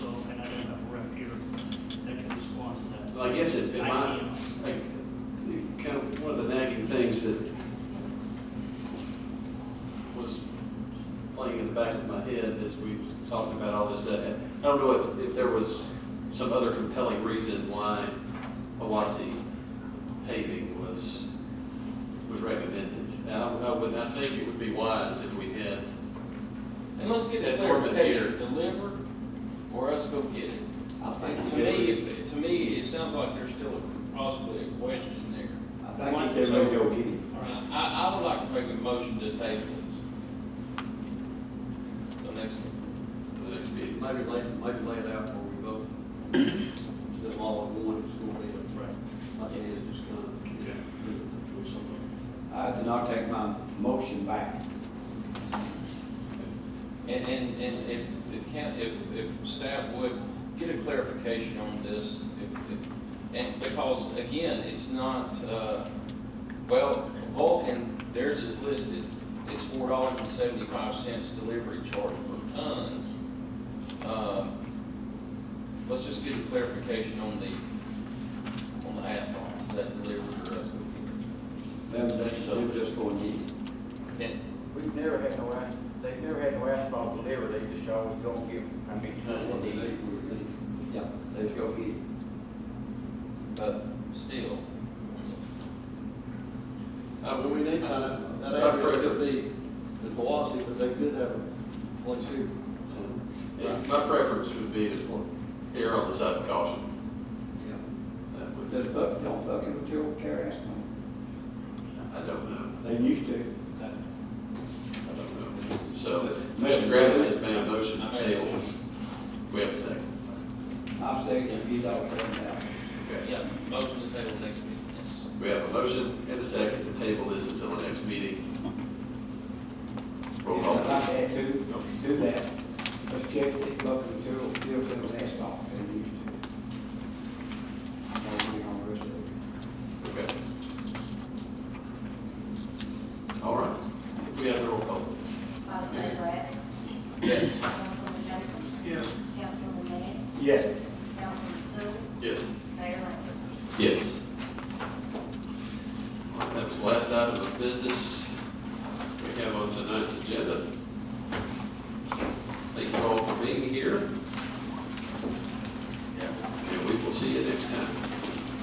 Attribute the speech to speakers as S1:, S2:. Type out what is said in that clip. S1: I guess it, it
S2: I
S1: might,
S2: can't.
S1: like, the- kind of, one of the nagging things that was playing in the back of my head as we talked about all this, that, I don't know if, if there was some other compelling reason why Hawassi paving was, was recommended. And I, I would, I think it would be wise if we had,
S3: And let's get the
S1: That Norman
S3: clarification, deliver or us go get it.
S4: I think
S3: To me, if, to me, it sounds like there's still a- possibly a question there.
S4: I think it's everybody go get it.
S3: All right, I, I would like to make a motion to table this. The next one.
S1: for the next meeting.
S5: Maybe lay, maybe lay it out before we vote. That's all I want, it's gonna be, that's right. My dad is just kind of,
S1: Okay.
S5: do something.
S4: I do not take my motion back.
S3: And, and, and if, if can, if, if staff would get a clarification on this, if, if, and because again, it's not, uh, well, Vulcan, theirs is listed, it's four dollars and seventy-five cents delivery charge per ton. Uh, Let's just get a clarification on the, on the asphalt, is that delivered or us?
S4: Them, that's,
S3: So-
S4: we just go and get it.
S3: And,
S6: We've never had no asphalt, they've never had no asphalt delivered, they just always don't give, I mean,
S5: That's what they need, we're gonna-
S4: Yeah, let's go get it.
S3: but still, I mean,
S5: Uh, Well, we need time, that
S1: By
S5: area could
S1: preference.
S5: be the velocity, but they could have a place here.
S1: And My preference would be to err on the side of caution. Uh,
S4: Yeah.
S1: That
S4: But
S1: would-
S4: Does Buck, don't Bucket with your carry ass
S1: I don't know,
S4: They used to.
S1: I don't know. So, Mr. Gravett has made a motion to table. We have a second.
S4: I'll say if you don't turn it out.
S1: Okay.
S3: yeah, motion to table next meeting, yes.
S1: We have a motion and a second to table this until the next meeting. Roll call.
S4: If I had to, do that. Let's check if Bucket material still fit on asphalt, they used to. Or we on the rest of it.
S1: Okay. All right. We have the roll call.
S7: Councilman Bratton?
S3: Yes.
S7: Councilman Jenkins?
S1: Yes.
S7: Councilman May?
S4: Yes.
S7: Councilman Sue?
S1: Yes.
S7: Mayor Lambert?
S1: Yes. All right, That was the last item of business we have on tonight's agenda. Thank you all for being here. And we will see you next time.